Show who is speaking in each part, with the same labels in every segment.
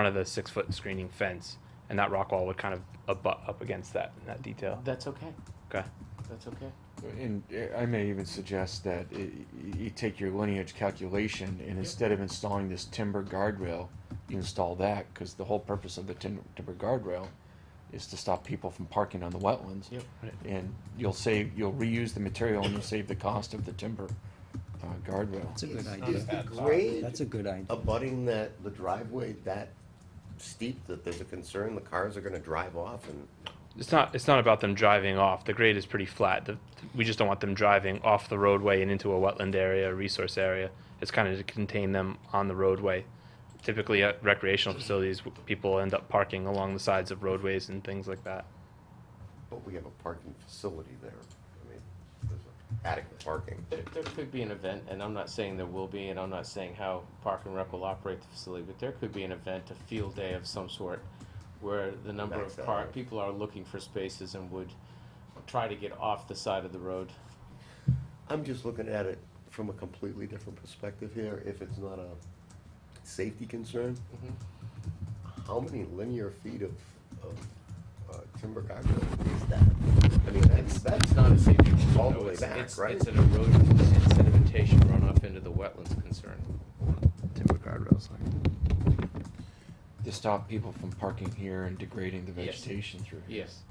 Speaker 1: front of the six foot screening fence, and that rock wall would kind of abut up against that that detail.
Speaker 2: That's okay.
Speaker 1: Okay.
Speaker 2: That's okay.
Speaker 3: And uh, I may even suggest that i- y you take your lineage calculation and instead of installing this timber guardrail, you install that, because the whole purpose of the timber, timber guardrail is to stop people from parking on the wetlands.
Speaker 2: Yep.
Speaker 1: Right.
Speaker 3: And you'll save, you'll reuse the material and you'll save the cost of the timber, uh, guardrail.
Speaker 4: That's a good
Speaker 5: Is
Speaker 4: idea.
Speaker 5: the grade
Speaker 4: That's a good idea.
Speaker 5: abutting that, the driveway that steep that there's a concern the cars are gonna drive off and,
Speaker 1: It's not it's not about them driving off. The grade is pretty flat. The, we just don't want them driving off the roadway and into a wetland area, a resource area. It's kind of to contain them on the roadway. Typically at recreational facilities, w- people end up parking along the sides of roadways and things like that.
Speaker 5: but we have a parking facility there. I mean, there's adequate parking.
Speaker 2: There, there could be an event, and I'm not saying there will be, and I'm not saying how Park and Rec will operate the facility, but there could be an event, a field day of some sort, where the number
Speaker 5: Backs
Speaker 2: of
Speaker 5: that
Speaker 2: par,
Speaker 5: way.
Speaker 2: people are looking for spaces and would try to get off the side of the road.
Speaker 5: I'm just looking at it from a completely different perspective here. If it's not a safety concern,
Speaker 2: Mhm.
Speaker 5: how many linear feet of, of uh, timber guardrail is that? I mean, that's, that's
Speaker 6: It's not a safety concern.
Speaker 5: all the
Speaker 6: though.
Speaker 5: way
Speaker 6: It's-
Speaker 5: back,
Speaker 6: it's-
Speaker 5: right?
Speaker 6: It's an erosion and sedimentation runoff into the wetlands concern.
Speaker 1: Timber guardrails.
Speaker 3: To stop people from parking here and degrading the
Speaker 6: Yes.
Speaker 3: vegetation through here.
Speaker 6: Yes.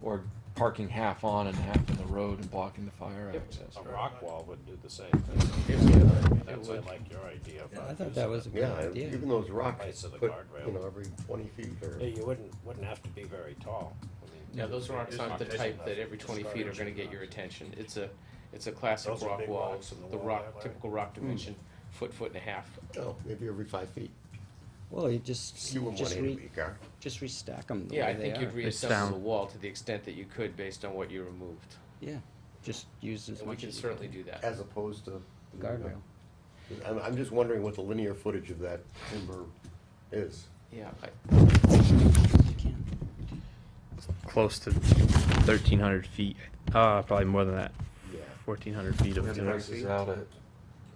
Speaker 3: Or parking half on and half in the road and blocking the fire
Speaker 6: Yep.
Speaker 3: access.
Speaker 7: A rock wall would do the same thing. That's, I
Speaker 6: would.
Speaker 7: like your idea. of
Speaker 4: Yeah, I
Speaker 7: not
Speaker 4: thought that
Speaker 7: using
Speaker 4: was a good
Speaker 5: Yeah,
Speaker 4: idea.
Speaker 5: even those rocks,
Speaker 7: Place of the
Speaker 5: put,
Speaker 7: guardrail.
Speaker 5: you know, every twenty feet or.
Speaker 7: it. Yeah, you wouldn't, wouldn't have to be very tall. I mean,
Speaker 6: Now, those rocks
Speaker 7: it's
Speaker 6: aren't the
Speaker 7: not big
Speaker 6: type
Speaker 7: enough.
Speaker 6: that every twenty
Speaker 7: It's
Speaker 6: feet are
Speaker 7: garbage
Speaker 6: gonna get your
Speaker 7: rocks.
Speaker 6: attention. It's a, it's a classic
Speaker 7: Those are
Speaker 6: rock
Speaker 7: big
Speaker 6: wall,
Speaker 7: rocks in the
Speaker 6: the
Speaker 7: wall
Speaker 6: rock,
Speaker 7: that way.
Speaker 6: typical rock
Speaker 4: Hmm.
Speaker 6: dimension, foot, foot and a half.
Speaker 5: Oh, maybe every five feet.
Speaker 4: Well, you just,
Speaker 5: You wouldn't want
Speaker 4: just
Speaker 5: it to
Speaker 4: re,
Speaker 5: be car.
Speaker 4: just restack them the
Speaker 6: Yeah, I
Speaker 4: way they
Speaker 6: think you'd
Speaker 4: are.
Speaker 1: It's
Speaker 6: reassemble
Speaker 1: down.
Speaker 6: the wall to the extent that you could based on what you removed.
Speaker 4: Yeah, just use as
Speaker 6: And we
Speaker 4: much
Speaker 6: can
Speaker 4: as you
Speaker 6: certainly
Speaker 4: can.
Speaker 6: do that.
Speaker 5: As opposed to.
Speaker 4: Guardrail.
Speaker 5: I'm, I'm just wondering what the linear footage of that timber is.
Speaker 6: Yeah, I-
Speaker 4: You can.
Speaker 1: Close to 1,300 feet. Uh, probably more than that.
Speaker 5: Yeah.
Speaker 1: 1,400 feet of
Speaker 3: Yeah, the
Speaker 1: timber.
Speaker 3: price is out at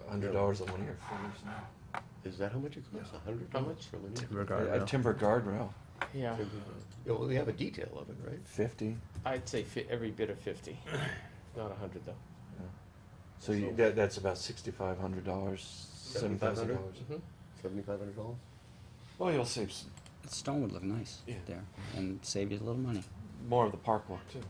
Speaker 3: a hundred dollars a linear foot. or
Speaker 5: Is that how much it costs? A hundred?
Speaker 2: How
Speaker 5: dollars for linear?
Speaker 1: timber
Speaker 3: something. A
Speaker 1: guardrail.
Speaker 3: timber guardrail,
Speaker 2: Yeah,
Speaker 5: Yeah, well, they have a detail of it, right?
Speaker 3: fifty.
Speaker 2: I'd say fi- every bit of fifty, not a hundred though.
Speaker 3: So you, that, that's about sixty-five hundred dollars, seven thousand dollars.
Speaker 7: Mm-hmm.
Speaker 2: Mhm.
Speaker 5: Seventy-five hundred dollars?
Speaker 3: Well, you'll save s-
Speaker 4: That Stone would look nice
Speaker 3: Yeah.
Speaker 4: there and save you a little money.
Speaker 3: more of the park walk too.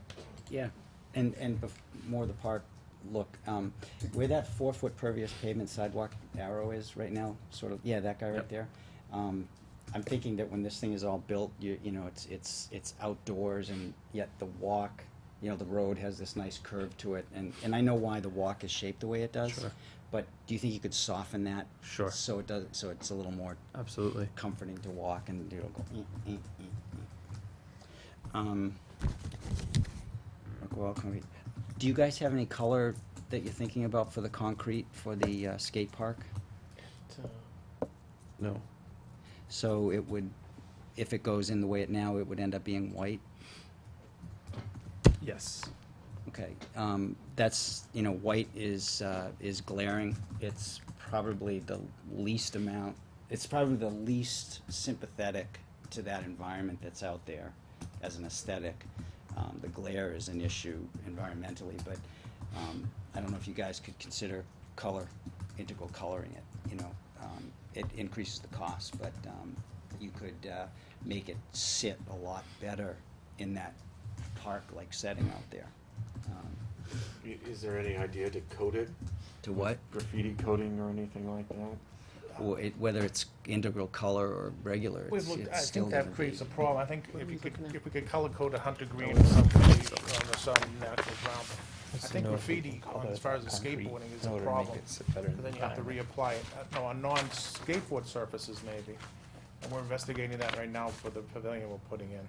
Speaker 4: Yeah, and, and bef- more the park look, um, where that four-foot pervious pavement sidewalk arrow is right now, sort of, yeah, that guy right
Speaker 1: Yep.
Speaker 4: there. Um, I'm thinking that when this thing is all built, you, you know, it's, it's, it's outdoors and yet the walk, you know, the road has this nice curve to it, and, and I know why the walk is shaped the way it does.
Speaker 1: Sure.
Speaker 4: But do you think you could soften that?
Speaker 1: Sure.
Speaker 4: So it does, so it's a little more
Speaker 1: Absolutely.
Speaker 4: comforting to walk and you know go. "Eh, eh, eh, eh." Um, rock wall concrete. Do you guys have any color that you're thinking about for the concrete for the uh, skate park?
Speaker 2: So-
Speaker 1: No.
Speaker 4: So it would, if it goes in the way it now, it would end up being white.
Speaker 1: Yes.
Speaker 4: Okay, um, that's, you know, white is, uh, is glaring. It's probably the least amount, it's probably the least sympathetic to that environment that's out there as an aesthetic. Um, the glare is an issue environmentally, but, um, I don't know if you guys could consider color, integral coloring it, you know? Um, it increases the cost, but, um, you could, uh, make it sit a lot better in that park-like setting out there. Um,
Speaker 3: Is there any idea to coat it,
Speaker 4: To what?
Speaker 3: graffiti coating or anything like that?
Speaker 4: Or it, whether it's integral color or regular,
Speaker 8: We've
Speaker 4: it's,
Speaker 8: looked, I
Speaker 4: it's still
Speaker 8: think
Speaker 4: gonna
Speaker 8: that creates
Speaker 4: be-
Speaker 8: a problem, I think
Speaker 2: What are
Speaker 8: if
Speaker 2: we
Speaker 8: you could,
Speaker 2: looking at?
Speaker 8: if we could color code a hunter green or something, or some natural brown. I
Speaker 1: Just
Speaker 8: think
Speaker 1: know if
Speaker 8: graffiti,
Speaker 1: we can
Speaker 8: on-
Speaker 1: color
Speaker 8: as far as the
Speaker 1: concrete
Speaker 8: skateboarding is
Speaker 1: in
Speaker 8: a
Speaker 1: order to make
Speaker 8: problem,
Speaker 1: it sit better in
Speaker 8: but
Speaker 1: the
Speaker 8: then you have to reapply it, Uh, no, on non-skateboard surfaces maybe. And we're investigating that right now for the pavilion we're putting in.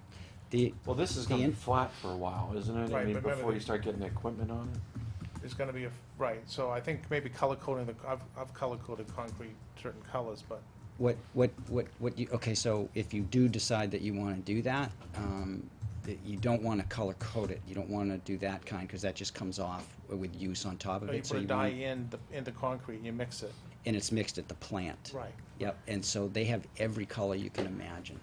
Speaker 4: The,
Speaker 3: Well, this is
Speaker 4: The
Speaker 3: gonna be
Speaker 4: in-
Speaker 3: flat for a while, isn't it? I
Speaker 8: Right,
Speaker 3: mean,
Speaker 8: but remember
Speaker 3: before
Speaker 8: the-
Speaker 3: you start getting equipment on it.
Speaker 8: It's gonna be, a right, so I think maybe color coding the, I've, I've color coded concrete certain colors, but
Speaker 4: what, what, what, what you, okay, so if you do decide that you wanna do that, um, that you don't wanna color code it, you don't wanna do that kind, cause that just comes off with use on top of
Speaker 8: or you
Speaker 4: it, so
Speaker 8: put a
Speaker 4: you
Speaker 8: dye
Speaker 4: want.
Speaker 8: in, the in the concrete, you mix it.
Speaker 4: and it's mixed at the plant.
Speaker 8: Right.
Speaker 4: Yep, and so they have every color you can imagine.